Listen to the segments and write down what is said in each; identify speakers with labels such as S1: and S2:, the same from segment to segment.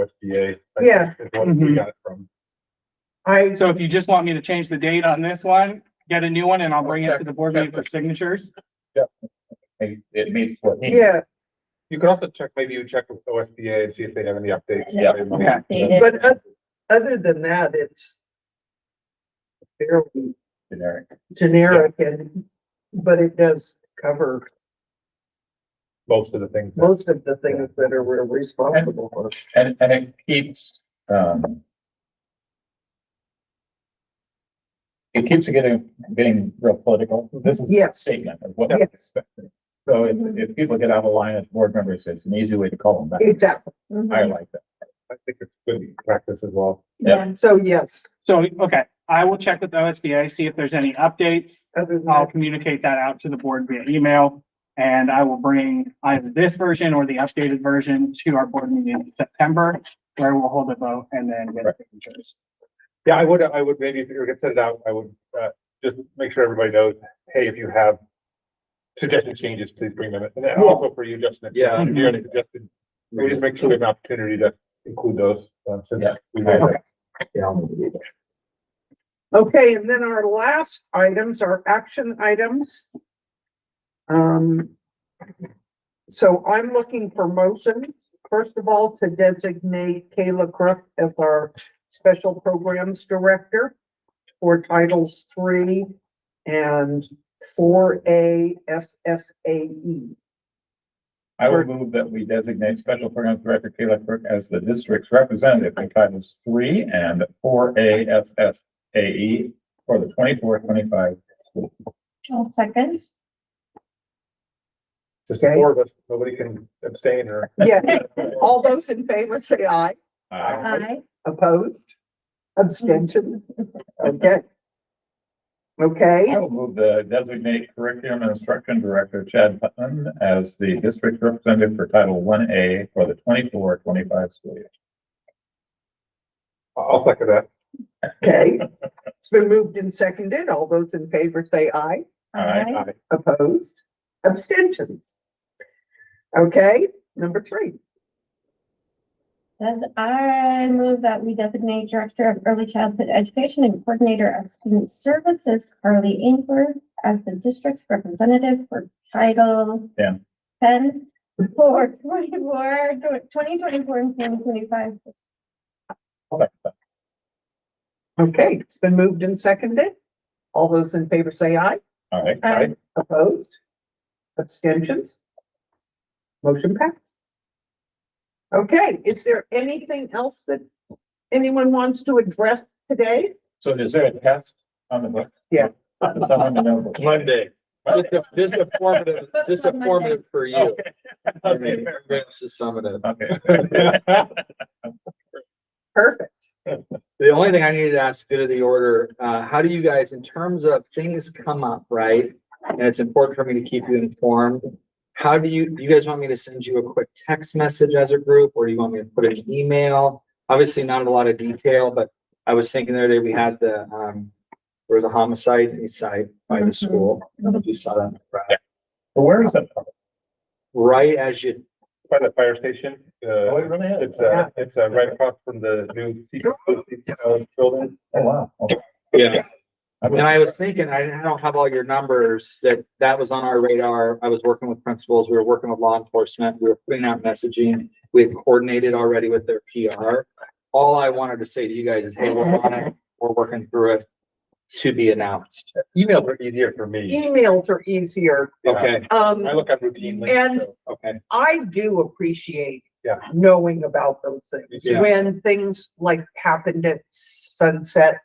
S1: OSBA. I
S2: Yeah.
S1: think Is what we
S3: Mhm.
S1: got it from.
S2: I,
S3: So if you just want me to change the date on this one, get a new one and I'll bring it to the board meeting for signatures.
S4: It it means what he.
S2: yeah,
S1: You could also check, maybe you check with OSBA and see if they have any updates.
S5: Yeah.
S3: Okay.
S5: Dated.
S2: but uh, oth- other than that, it's fairly
S4: Generic.
S2: generic and, but it does cover
S1: Most of the things. that-
S2: most of the things that are we're responsible for.
S4: And, and it keeps, um. It keeps getting, getting real political. This is a
S2: Yes.
S4: statement of what.
S2: Yes,
S4: So if, if people get out of line as board members, it's an easy way to call them back.
S2: exactly.
S4: I
S5: Mhm.
S4: like that.
S1: I think it's good practice as well.
S4: Yeah.
S2: So yes,
S3: So, okay, I will check with OSBA, see if there's any updates.
S2: other than
S3: I'll
S2: that,
S3: communicate that out to the board via email. And I will bring either this version or the updated version to our board meeting in September, where we'll hold a vote and then get signatures.
S1: Yeah, I would, I would maybe if you could set it out, I would, uh, just make sure everybody knows, hey, if you have suggested changes, please bring them. in. And then also for you, Justin. if you-
S4: Yeah.
S1: If you had suggested, we just make sure we have an opportunity to include those, um, since
S4: Yeah.
S1: we made that.
S2: okay, and then our last items are action items. Um, so I'm looking for motions, first of all, to designate Kayla Crook as our Special Programs Director for Titles Three and Four A S S A E.
S4: I will move that we designate Special Programs Director Kayla Kirk as the district's representative in titles three and four A S S A E for the 24-25. school.
S5: I'll second.
S1: Just the four of us, nobody can abstain or.
S2: Yeah, all those in favor say aye.
S4: Uh,
S5: Aye.
S2: Opposed? Abstentions? Okay. Okay,
S4: I will move the designate curriculum and instruction director Chad Putnam as the district representative for Title One A for the 24-25 school year.
S1: I'll second that.
S2: okay. It's been moved and seconded. All those in favor say aye.
S4: Aye.
S1: Aye.
S2: Opposed? Abstentions? Okay, number three.
S5: Then I move that we designate Director of Early Childhood Education and Coordinator of Student Services Carly Ingber as the district representative for Title
S4: Yeah.
S5: ten for 24, 2024, and twenty twenty-five.
S2: Okay, it's been moved and seconded. All those in favor say aye.
S4: Aye.
S5: Aye.
S2: Opposed? Abstentions? Motion passed. Okay, is there anything else that anyone wants to address today?
S4: So is there a test on the book?
S2: Yeah.
S4: Someone to know.
S6: Monday, just a, just a formative,
S5: Book
S6: just a
S5: club Monday.
S6: formative for you.
S4: Okay.
S6: This is summative.
S4: Okay.
S2: Perfect.
S6: The only thing I needed to ask, good of the order, uh, how do you guys, in terms of things come up, right? And it's important for me to keep you informed. How do you, do you guys want me to send you a quick text message as a group, or do you want me to put an email? Obviously, not a lot of detail, but I was thinking the other day, we had the, um, there was a homicide in East Side by the
S5: Mhm.
S6: school. I don't know if You saw that, in the press.
S4: So Where is it?
S6: right as you
S1: By the fire station,
S4: Oh, it
S1: uh,
S4: really is.
S1: it's, uh, it's, uh, right across from the new CPO building.
S4: Oh, wow. Okay.
S6: Yeah.
S4: I
S6: And I was thinking, I I don't have all your numbers, that that was on our radar. I was working with principals, we were working with law enforcement, we were putting out messaging. We had coordinated already with their PR. All I wanted to say to you guys is, hey, we're on it, we're working through it to be announced.
S1: Emails are easier for me.
S2: Emails are easier.
S1: Yeah.
S6: Okay,
S2: Um,
S1: I look at routinely.
S2: And-
S1: so-
S6: okay.
S2: I do appreciate
S1: Yeah.
S2: knowing about those things.
S6: Yeah.
S2: When things like happened at sunset,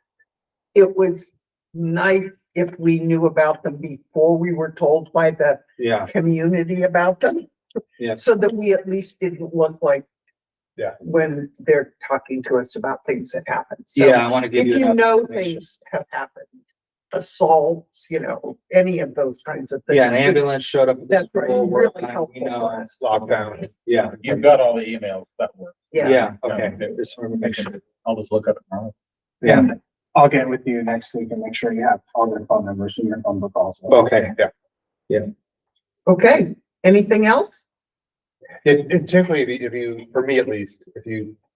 S2: it was nice if we knew about them before we were told by the
S6: Yeah,
S2: community about them.
S6: Yeah.
S2: So that we at least didn't look like
S1: Yeah.
S2: when they're talking to us about things that happened. So
S6: yeah, I want to give
S2: If
S6: you.
S2: you
S6: enough
S2: know
S6: information.
S2: things have happened, assaults, you know, any of those kinds of things.
S6: Yeah, an ambulance showed up. at the
S2: That's right,
S6: school, we're
S2: really
S6: like, we
S2: helpful
S6: know.
S2: for us.
S1: Lockdown.
S6: Yeah,
S4: You've got all the emails that work.
S2: Yeah,
S6: yeah, okay. Just wanted to make sure.
S4: I'll just look up tomorrow.
S6: Yeah,
S3: I'll get with you next week and make sure you have all their phone numbers in your phone book also.
S6: okay.
S2: okay. Anything else?
S1: And, and typically, if you- if you, for me at least, if you